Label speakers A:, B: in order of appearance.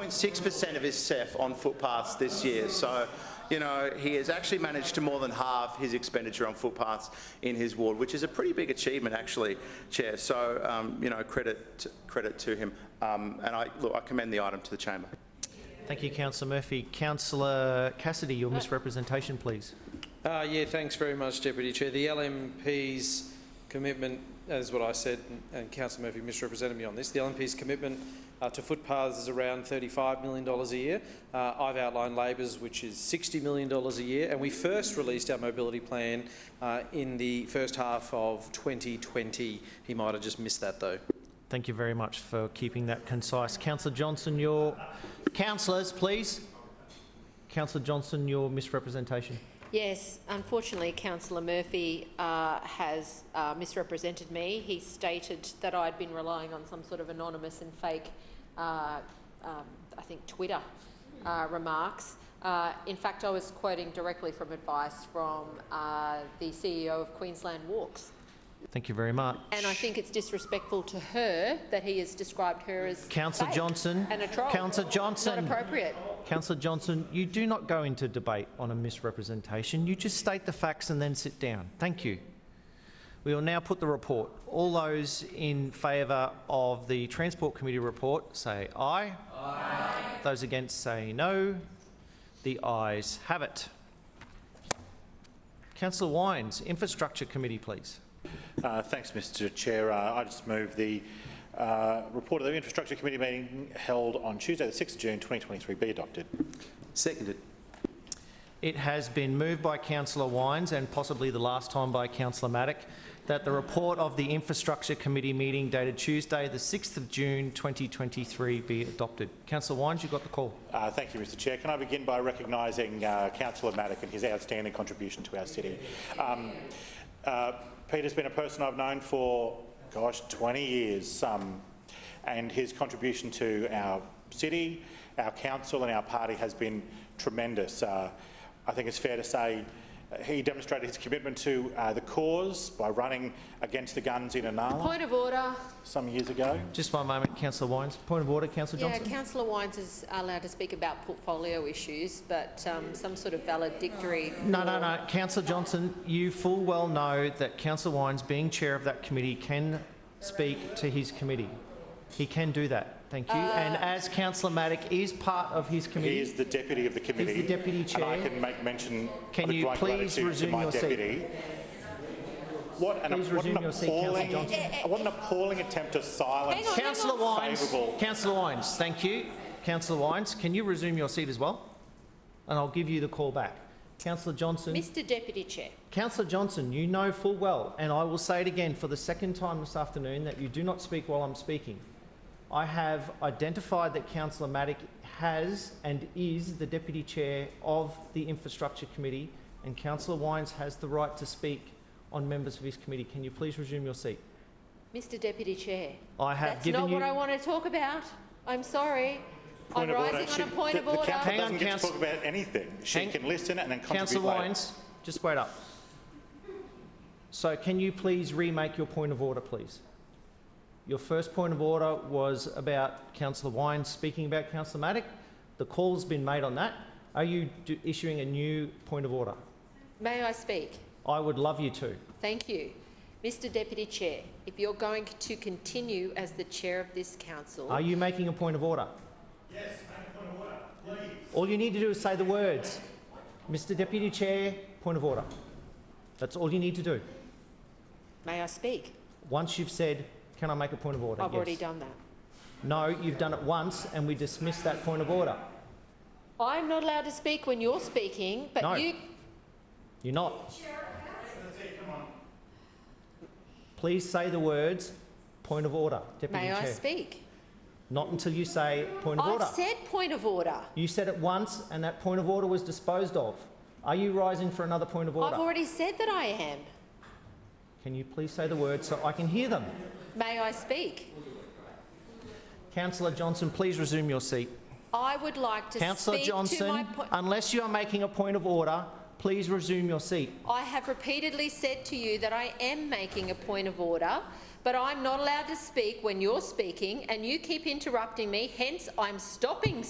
A: 0.6% of his CEF on footpaths this year. So, you know, he has actually managed to more than halve his expenditure on footpaths in his ward, which is a pretty big achievement, actually, Chair. So, um, you know, credit credit to him. Um, and I, look, I commend the item to the chamber.
B: Thank you, Councillor Murphy. Councillor Cassidy, your misrepresentation, please.
C: Uh, yeah, thanks very much, Deputy Chair. The LNP's commitment, as what I said, and- and Councillor Murphy misrepresented me on this, the LNP's commitment uh, to footpaths is around $35 million a year. Uh, I've outlined Labor's, which is $60 million a year, and we first released our mobility plan uh, in the first half of 2020. He might have just missed that, though.
B: Thank you very much for keeping that concise. Councillor Johnson, your... Councillors, please. Councillor Johnson, your misrepresentation.
D: Yes, unfortunately, Councillor Murphy uh, has uh, misrepresented me. He stated that I'd been relying on some sort of anonymous and fake, uh, um, I think, Twitter uh, remarks. Uh, in fact, I was quoting directly from advice from uh, the CEO of Queensland Walks.
B: Thank you very much.
D: And I think it's disrespectful to her that he has described her as
B: Councillor
D: fake
B: Johnson.
D: and a troll.
B: Councillor Johnson.
D: Not appropriate.
B: Councillor Johnson, you do not go into debate on a misrepresentation. You just state the facts and then sit down. Thank you. We will now put the report. All those in favour of the Transport Committee report say aye. Aye. Those against say no. The ayes have it. Councillor Wines, Infrastructure Committee, please.
E: Uh, Thanks, Mr Chair. Uh, I just move the uh, report of the Infrastructure Committee meeting held on Tuesday, the 6th of June 2023 be adopted.
A: Seconded.
B: It has been moved by Councillor Wines and possibly the last time by Councillor Matic that the report of the Infrastructure Committee meeting dated Tuesday, the 6th of June 2023 be adopted. Councillor Wines, you've got the call.
E: Uh, Thank you, Mr Chair. Can I begin by recognising uh, Councillor Maddock and his outstanding contribution to our city? Um, uh, Peter's been a person I've known for, gosh, 20 years, um, and his contribution to our city, our council and our party has been tremendous. Uh, I think it's fair to say uh, he demonstrated his commitment to uh, the cause by running against the guns in Anala
D: Point of order.
E: some years ago.
B: Just one moment, Councillor Wines. Point of order, Councillor
D: Yeah,
B: Johnson.
D: Councillor Wines is allowed to speak about portfolio issues, but um, some sort of valedictory.
B: No, no, no. Councillor Johnson, you full well know that Councillor Wines, being chair of that committee, can speak to his committee. He can do that. Thank you. And as Councillor Matic is part of his
E: He
B: committee...
E: is the deputy of the committee.
B: deputy
E: And
B: chair.
E: I can make mention
B: Can
E: of
B: you
E: the great
B: please
E: gratitude to
B: resume
E: my
B: your seat?
E: deputy. What an,
B: Please
E: what an
B: resume your seat, Councillor
E: appalling,
D: Eh,
B: Johnson.
E: what an appalling attempt to silence.
D: Hang on.
B: Councillor Wines,
E: Favourable.
B: Councillor Wines, thank you. Councillor Wines, can you resume your seat as well? And I'll give you the call back. Councillor Johnson,
D: Mr Deputy Chair,
B: Councillor Johnson, you know full well, and I will say it again for the second time this afternoon, that you do not speak while I'm speaking. I have identified that Councillor Matic has and is the deputy chair of the infrastructure committee, and Councillor Wines has the right to speak on members of his committee. Can you please resume your seat?
D: Mr Deputy Chair.
B: I have
D: That's
B: given
D: not what
B: you-
D: I want to talk about. I'm sorry. I'm
E: Point of order.
D: rising on
E: She-
D: a point
E: the-
D: of order.
E: The council
B: Hang on,
E: doesn't get to
B: council-
E: talk about anything. She
B: Hang-
E: can listen and then contribute
B: Councillor
E: later.
B: Wines, just wait up. So can you please remake your point of order, please? Your first point of order was about Councillor Wines speaking about Councillor Matic. The call's been made on that. Are you do- issuing a new point of order?
D: May I speak?
B: I would love you to.
D: Thank you. Mr Deputy Chair, if you're going to continue as the chair of this council,
B: Are you making a point of order? Yes, make a point of order, please. All you need to do is say the words. Mr Deputy Chair, point of order. That's all you need to do.
D: may I speak?
B: Once you've said, can I make a point of order?
D: I've already
B: Yes.
D: done that.
B: No, you've done it once and we dismiss that point of order.
D: I'm not allowed to speak when you're speaking,
B: No.
D: but you,
B: You're not. Please say the words, point of order, Deputy
D: may
B: Chair.
D: I speak?
B: Not until you say point of order.
D: I've said point of order.
B: You said it once and that point of order was disposed of. Are you rising for another point of order?
D: I've already said that I am.
B: Can you please say the words so I can hear them?
D: May I speak?
B: Councillor Johnson, please resume your seat.
D: I would like to
B: Councillor
D: speak to my
B: Johnson,
D: point.
B: unless you are making a point of order, please resume your seat.
D: I have repeatedly said to you that I am making a point of order, but I'm not allowed to speak when you're speaking, and you keep interrupting me. Hence, I'm stopping